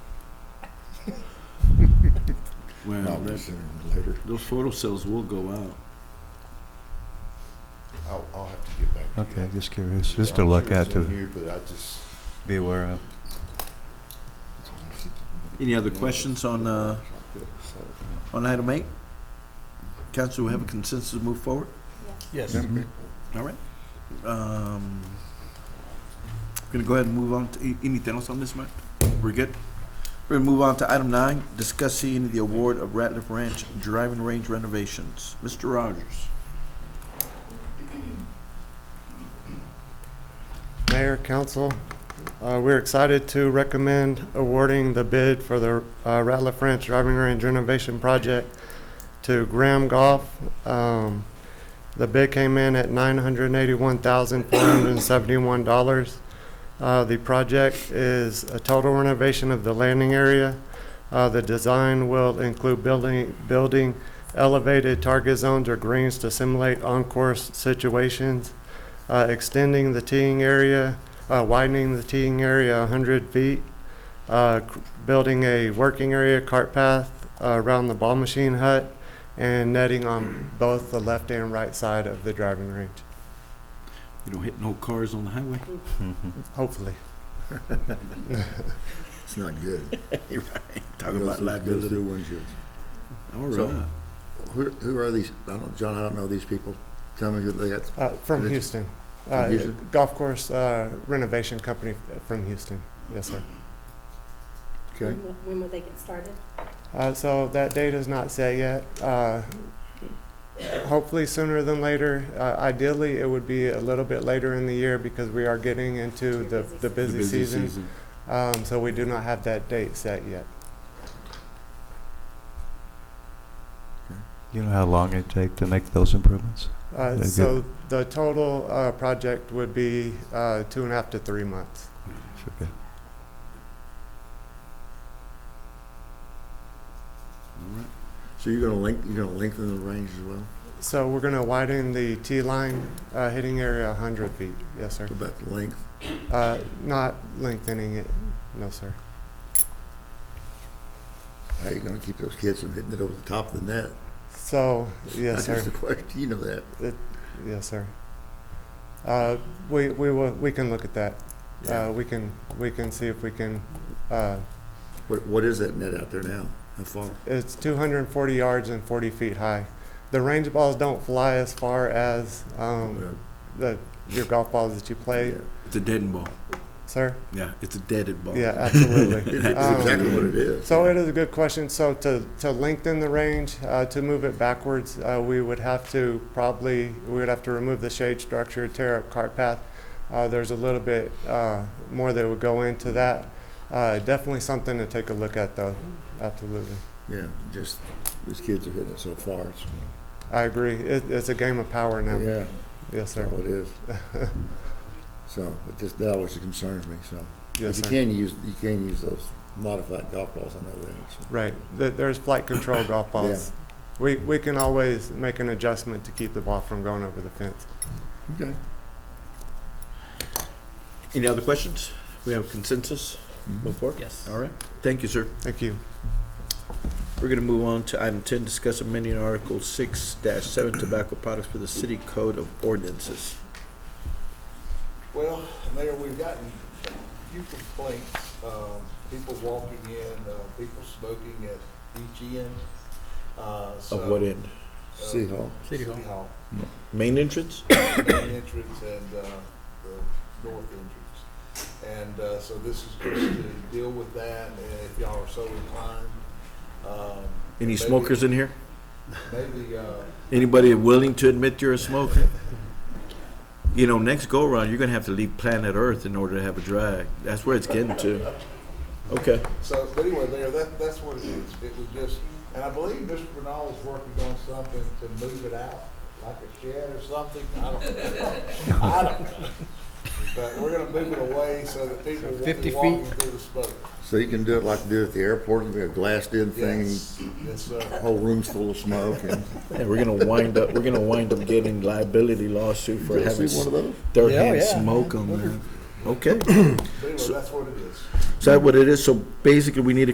Well, Not that, sooner than later. those photo cells will go out. I'll, I'll have to get back. to you. Okay, just curious, just to I'm look sure at it's in to here, But I just. be aware of. Any other questions on, uh, on item eight? Council, we have a consensus to move forward? Yes. Mm-hmm. All right. Um, Gonna go ahead and move on to, a- anything else on this, Mike? We're good? We're gonna move on to item nine, discuss seeing the award of Ratliff Ranch driving range renovations. Mr. Rogers. Mayor, council, uh, we're excited to recommend awarding the bid for the uh, Rattler French Driving Range Renovation Project to Graham Golf. Um, The bid came in at $981,471. Uh, The project is a total renovation of the landing area. Uh, The design will include building, building elevated target zones or greens to simulate on-course situations uh, extending the teeing area, uh, widening the teeing area 100 feet, uh, c- building a working area cart path uh, around the ball machine hut, and netting on both the left and right side of the driving range, You don't hit no cars on the highway? Mm-hmm. hopefully. It's not good. You're right. Talking about liability. Those are windshields. All So- right. Who, who are these? I don't, John, I don't know these people. Tell me who they are. Uh, From Rich- Houston. From Uh, Houston? Golf course uh, renovation company uh, from Houston, yes, sir. Okay. When will- When will they get started? Uh, so that date is not set yet. Uh, hopefully sooner than later. Uh, ideally, it would be a little bit later in the year because we are getting into the, the The busy season. Um, so we do not have that date set yet. You know how long it take to make those improvements? Very Uh, good. so the total uh, project would be uh, two and a half to three months. It's okay. All right. So you're gonna length, you're gonna lengthen the range as well? So we're going to widen the T line uh, hitting area 100 feet. Yes, sir. What about the length? Uh, not lengthening it. No, sir. How are you gonna keep those kids from hitting it over the top of the net? So, yes, sir. That's the question. You know that. Yes, sir. Uh, We, we will, we can look at that. Uh, We can, we can see if we can, uh, What, what is that net out there now? How far? it's 240 yards and 40 feet high. The range balls don't fly as far as Oh, um, the, your golf balls that you play, It's a dead ball. sir? Yeah, it's a deaded ball. Yeah, absolutely. Um, It's exactly what it is. So it is a good question. So to, to lengthen the range, uh, to move it backwards, uh, we would have to probably, we would have to remove the shade structure, tear up cart path. Uh, there's a little bit, uh, more that would go into that. Uh, definitely something to take a look at though, absolutely. Yeah, just, these kids are hitting it so far. It's- I agree. It, it's a game of power now. Yeah, Yes, that's sir. all it is. So, but this, that always concerns me, so. But Yes, you sir. can use, you can use those modified golf balls, I know that. so. Right. Th- There's flight control golf balls. We, we can always make an adjustment to keep the ball from going over the fence. Okay. Any other questions? We have consensus before? Yes. All right. Thank you, sir. Thank you. We're gonna move on to item ten, discuss amending Article six dash seven tobacco products for the city code of ordinances. Well, Mayor, we've gotten a few complaints, um, people walking in, uh, people smoking at each end. uh, Of so- uh, what end? City Hall. City Hall. Main entrance? main entrance and uh, the north entrance. And uh, so this is just to deal with that, and if y'all are so inclined. um, Any maybe- smokers in here? Maybe, uh, Anybody willing to admit you're a smoker? You know, next go around, you're gonna have to leave planet Earth in order to have a drag. That's where it's getting to. Okay. So, but anyway, there, that, that's what it is. It was just, and I believe Mr. Bernal is working on something to move it out, like a shed or something. I don't, I don't know. But we're gonna move it away so that people won't 50 be feet? walking through the smoke. So you can do it like they do at the airport, you have a glassed in thing, Yes, yes, sir. whole room's full of smoke and. Yeah, we're gonna wind up, we're gonna wind up getting liability lawsuit for Did I having see one of those? third hand Yeah, yeah. smoke on there. Okay, But Anyway, that's what it is. is that what it is? So basically, we need a